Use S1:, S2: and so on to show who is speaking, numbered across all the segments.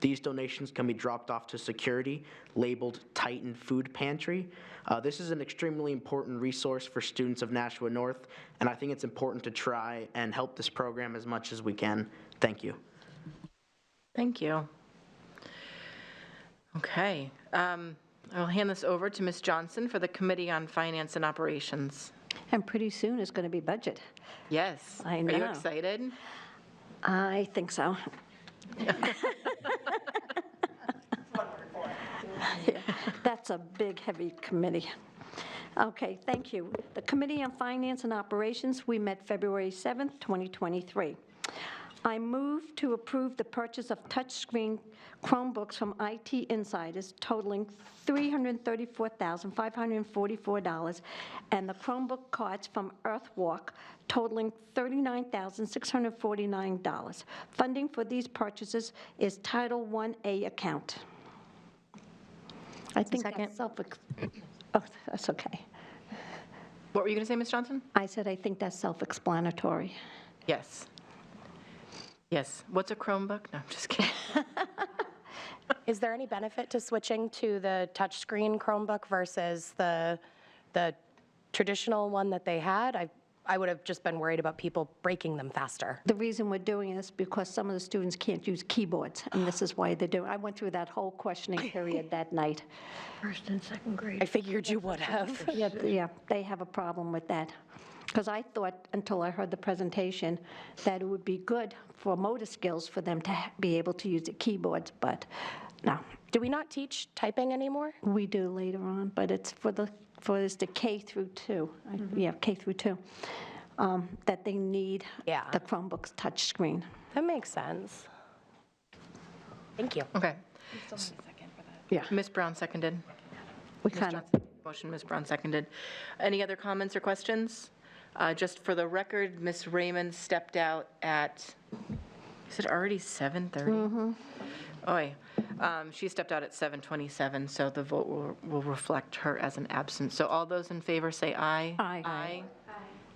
S1: These donations can be dropped off to security labeled Titan Food Pantry. Uh, This is an extremely important resource for students of Nashua North, and I think it's important to try and help this program as much as we can. Thank you.
S2: Thank you. Okay, um, I'll hand this over to Ms. Johnson for the Committee on Finance and Operations.
S3: And pretty soon it's going to be budget.
S2: Yes.
S3: I
S2: Are you
S3: know.
S2: excited?
S3: I think so. Yeah, That's a big, heavy committee. Okay, thank you. The Committee on Finance and Operations, we met February 7th, 2023. I move to approve the purchase of touchscreen Chromebooks from IT Insiders totaling $334,544, and the Chromebook carts from Earthwalk totaling $39,649. Funding for these purchases is Title 1A account. I think
S2: Second.
S3: that's self, oh, that's okay.
S2: What were you going to say, Ms. Johnson?
S3: I said, I think that's self-explanatory.
S2: Yes. Yes. What's a Chromebook? No, I'm just kidding.
S4: Is there any benefit to switching to the touchscreen Chromebook versus the, the traditional one that they had? I, I would have just been worried about people breaking them faster.
S3: The reason we're doing this, because some of the students can't use keyboards, and this is why they're doing, I went through that whole questioning period that night.
S5: First and second grade.
S4: I figured you would have.
S3: Yeah, yeah, they have a problem with that. Because I thought, until I heard the presentation, that it would be good for motor skills for them to ha- be able to use the keyboards, but no.
S4: Do we not teach typing anymore?
S3: We do later on, but it's for the, for this, the K through two, I- yeah, K through two, um, that they need
S4: Yeah.
S3: the Chromebooks touchscreen.
S4: That makes sense. Thank you.
S2: Okay.
S3: Yeah.
S2: Ms. Brown seconded.
S3: We
S2: Ms.
S3: kind of
S2: Johnson, motion, Ms. Brown seconded. Any other comments or questions? Uh, Just for the record, Ms. Raymond stepped out at, is it already 7:30? Oy, Um, she stepped out at 7:27, so the vote will- will reflect her as an absent. So all those in favor say aye.
S3: Aye.
S2: Aye.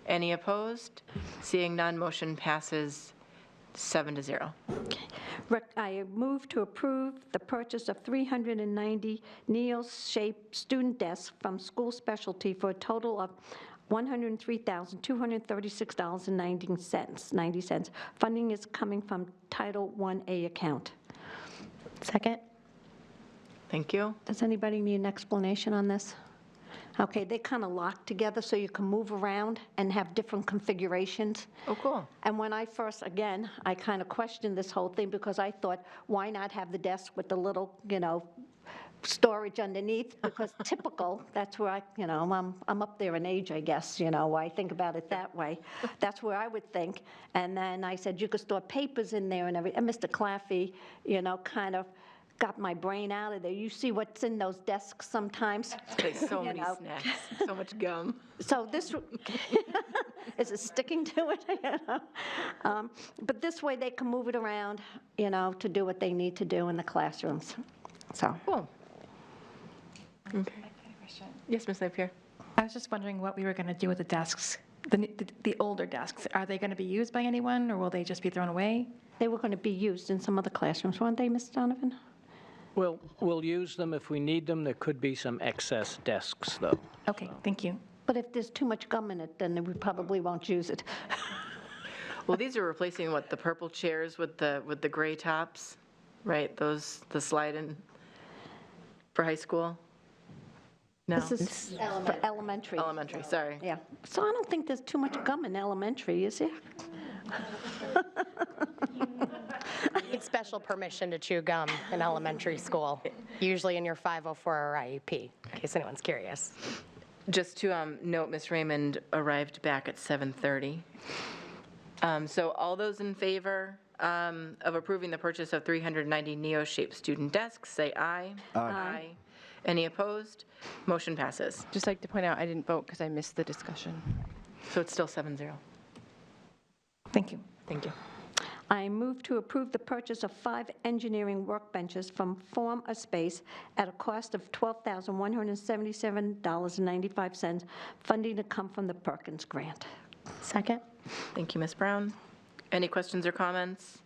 S2: Any opposed? Seeing none, motion passes seven to zero.
S3: Rec- I move to approve the purchase of 390 Neil-shaped student desks from School Specialty for a total of $103,236.90. 90 cents. Funding is coming from Title 1A account.
S4: Second?
S2: Thank you.
S3: Does anybody need an explanation on this? Okay, they kind of lock together so you can move around and have different configurations.
S2: Oh, cool.
S3: And when I first, again, I kind of questioned this whole thing because I thought, why not have the desk with the little, you know, storage underneath? Because typical, that's where I, you know, I'm, I'm up there in age, I guess, you know, I think about it that way. That's where I would think. And then I said, you could store papers in there and every, and Mr. Claffey, you know, kind of got my brain out of there. You see what's in those desks sometimes?
S2: There's so
S3: You
S2: many
S3: know.
S2: snacks, so much gum.
S3: So this, is it sticking to it? You know? Um, But this way, they can move it around, you know, to do what they need to do in the classrooms, so.
S2: Cool. Okay. Yes, Ms. Napier?
S6: I was just wondering what we were going to do with the desks, the, the- the older desks. Are they going to be used by anyone, or will they just be thrown away?
S3: They were going to be used in some other classrooms, weren't they, Ms. Donovan?
S7: We'll, we'll use them if we need them. There could be some excess desks, though.
S6: Okay, thank you.
S3: But if there's too much gum in it, then we probably won't use it.
S2: Well, these are replacing what, the purple chairs with the, with the gray tops, right? Those, the slide-in for high school? No,
S3: This is for elementary.
S2: elementary, sorry.
S3: Yeah, so I don't think there's too much gum in elementary, is there?
S4: Need special permission to chew gum in elementary school, usually in your 504 or IEP, E in case anyone's curious.
S2: Just to um, note, Ms. Raymond arrived back at 7:30. Um, So all those in favor um, of approving the purchase of 390 Neo-shaped student desks, say aye. Aye. Any opposed? Motion passes.
S8: Just like to point out, I didn't vote because I missed the discussion.
S2: So it's still 7-0.
S6: Thank you.
S2: Thank you.
S3: I move to approve the purchase of five engineering workbenches from Form a Space at a cost of $12,177.95, funding to come from the Perkins Grant.
S4: Second?
S2: Thank you, Ms. Brown. Any questions or comments?